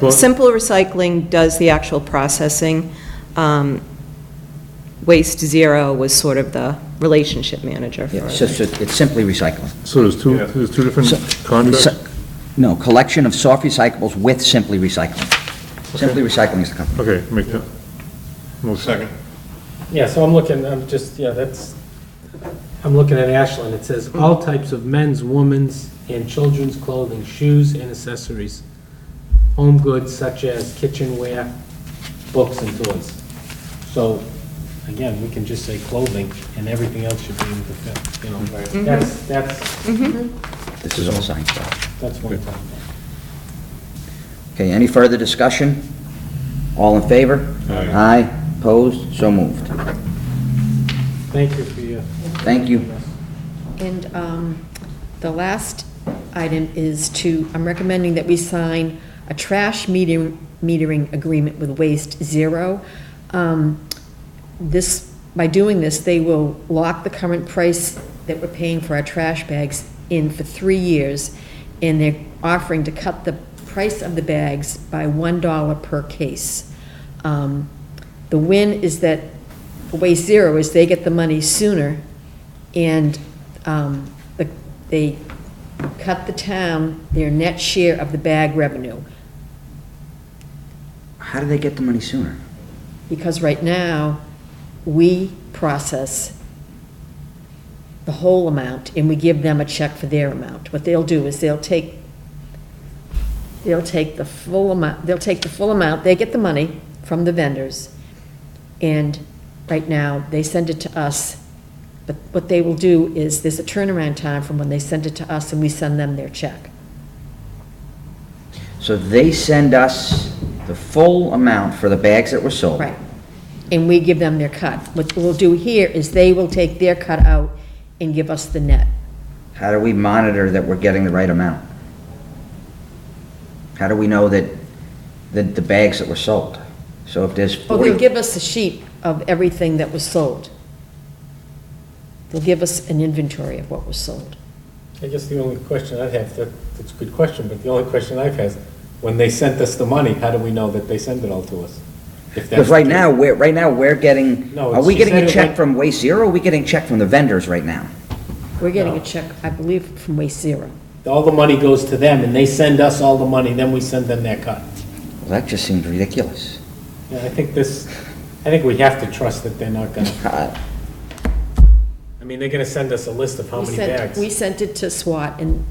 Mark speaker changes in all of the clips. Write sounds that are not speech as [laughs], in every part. Speaker 1: Well-
Speaker 2: Simple recycling does the actual processing. Um, Waste Zero was sort of the relationship manager for
Speaker 3: Yeah, It's
Speaker 2: it.
Speaker 3: just, a- it's simply recycling.
Speaker 1: So there's two,
Speaker 4: Yeah.
Speaker 1: there's two different
Speaker 3: So-
Speaker 1: contracts?
Speaker 3: Recy- No, collection of soft recyclables with simply recycling. Simply recycling is the company.
Speaker 1: Okay, make that. motion.
Speaker 4: Second.
Speaker 5: Yeah, so I'm looking, I'm just, yeah, that's, I'm looking at Ashland, it says, "All types of men's, women's, and children's clothing, shoes, and accessories, home goods such as kitchenware, books, and toys." So, again, we can just say clothing, and everything else should be in the, fit, you know, that's, that's,
Speaker 3: This is all signed.
Speaker 5: that's one thing.
Speaker 3: Okay, any further discussion? All in favor?
Speaker 4: Aye.
Speaker 3: Aye, opposed, so moved.
Speaker 5: Thank you for your.
Speaker 3: Thank you.
Speaker 6: And um, the last item is to, I'm recommending that we sign a trash meter- metering agreement with Waste Zero. Um, This, by doing this, they will lock the current price that we're paying for our trash bags in for three years, and they're offering to cut the price of the bags by $1 per case. Um, The win is that, for Waste Zero, is they get the money sooner and um, the- they cut the town their net share of the bag revenue,
Speaker 3: How do they get the money sooner?
Speaker 6: because right now, we process the whole amount, and we give them a check for their amount. What they'll do is they'll take, they'll take the full amount, they'll take the full amount, they get the money from the vendors, and right now, they send it to us, but what they will do is, there's a turnaround time from when they send it to us and we send them their check.
Speaker 3: So they send us the full amount for the bags that were sold.
Speaker 6: Right. And we give them their cut. What we'll do here is they will take their cut out and give us the net.
Speaker 3: How do we monitor that we're getting the right amount? How do we know that, that the bags that were sold? So if there's
Speaker 6: Well, they'll
Speaker 3: 40,
Speaker 6: give us a sheet of everything that was sold. They'll give us an inventory of what was sold.
Speaker 5: I guess the only question I'd have, that, that's a good question, but the only question I've had, is, when they sent us the money, how do we know that they send it all to us? If that's
Speaker 3: because right
Speaker 5: the case.
Speaker 3: now, we're, right now, we're getting,
Speaker 5: No,
Speaker 3: are we
Speaker 5: she
Speaker 3: getting
Speaker 5: said
Speaker 3: a
Speaker 5: it
Speaker 3: check
Speaker 5: went-
Speaker 3: from Waste Zero, or are we getting a check from the vendors right now?
Speaker 6: We're getting a
Speaker 5: No.
Speaker 6: check, I believe, from Waste Zero.
Speaker 5: all the money goes to them, and they send us all the money, then we send them that cut.
Speaker 3: Well, that just seems ridiculous.
Speaker 5: Yeah, I think this, I think we have to trust that they're not gonna,
Speaker 3: Uh,
Speaker 5: I mean, they're gonna send us a list of how
Speaker 6: We
Speaker 5: many
Speaker 6: sent-
Speaker 5: bags.
Speaker 6: We sent it to SWAT, and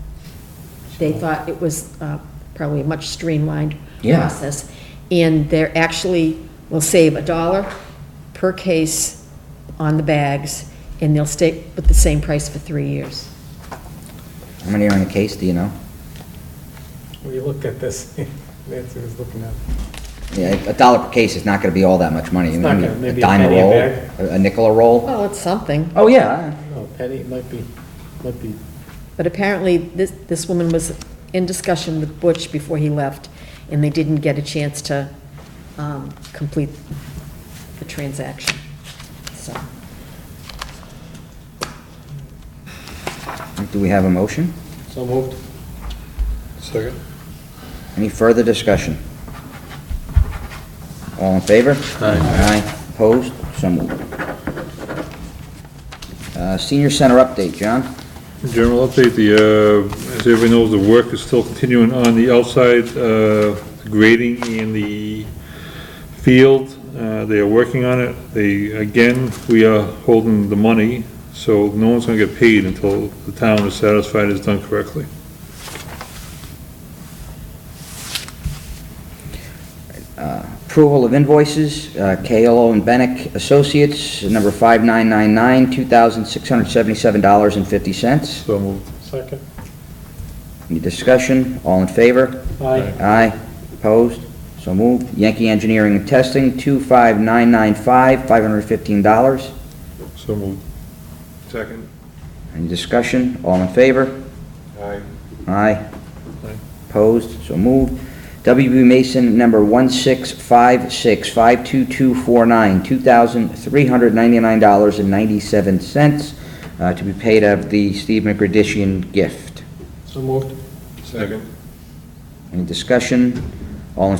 Speaker 6: they thought it was uh, probably a much streamlined
Speaker 3: Yeah.
Speaker 6: process. And they're actually, will save a dollar per case on the bags, and they'll stay with the same price for three years.
Speaker 3: How many are in a case, do you know?
Speaker 5: We looked at this, [laughs] Nancy was looking at, it.
Speaker 3: Yeah, a dollar per case is not gonna be all that much money.
Speaker 5: It's not gonna- maybe a
Speaker 3: dime
Speaker 5: penny a
Speaker 3: roll,
Speaker 5: bag.
Speaker 3: A a nickel a roll?
Speaker 6: Well, it's something,
Speaker 3: Oh, yeah.
Speaker 5: no, Penny, it might be, might be,
Speaker 6: but apparently, this, this woman was in discussion with Butch before he left, and they didn't get a chance to um, complete the transaction, so.
Speaker 3: Do we have a motion?
Speaker 5: so moved.
Speaker 4: Second.
Speaker 3: Any further discussion? All in favor? Aye. Aye, opposed, so moved. Uh, Senior Center update, John?
Speaker 1: General update, the, uh, as everybody knows, the work is still continuing on the outside, uh, grading in the field. Uh, they are working on it. They, again, we are holding the money, so no one's gonna get paid until the town is satisfied it's done correctly.
Speaker 3: Approval of invoices, uh, KLO and Benick Associates, number 5999, $2,677.50.
Speaker 1: So moved.
Speaker 5: Second.
Speaker 3: Any discussion? All in favor?
Speaker 5: Aye,
Speaker 3: Aye. Opposed? So moved. Yankee Engineering and Testing, 25995, $515.
Speaker 1: So moved.
Speaker 4: Second.
Speaker 3: Any discussion? All in favor?
Speaker 4: Aye.
Speaker 3: Aye.
Speaker 1: Aye.
Speaker 3: Opposed? So moved. WB Mason, number 1656, 52249, $2,399.97, uh, to be paid out of the Steve McGradishian gift.
Speaker 5: so moved.
Speaker 4: Second.
Speaker 3: Any discussion? All in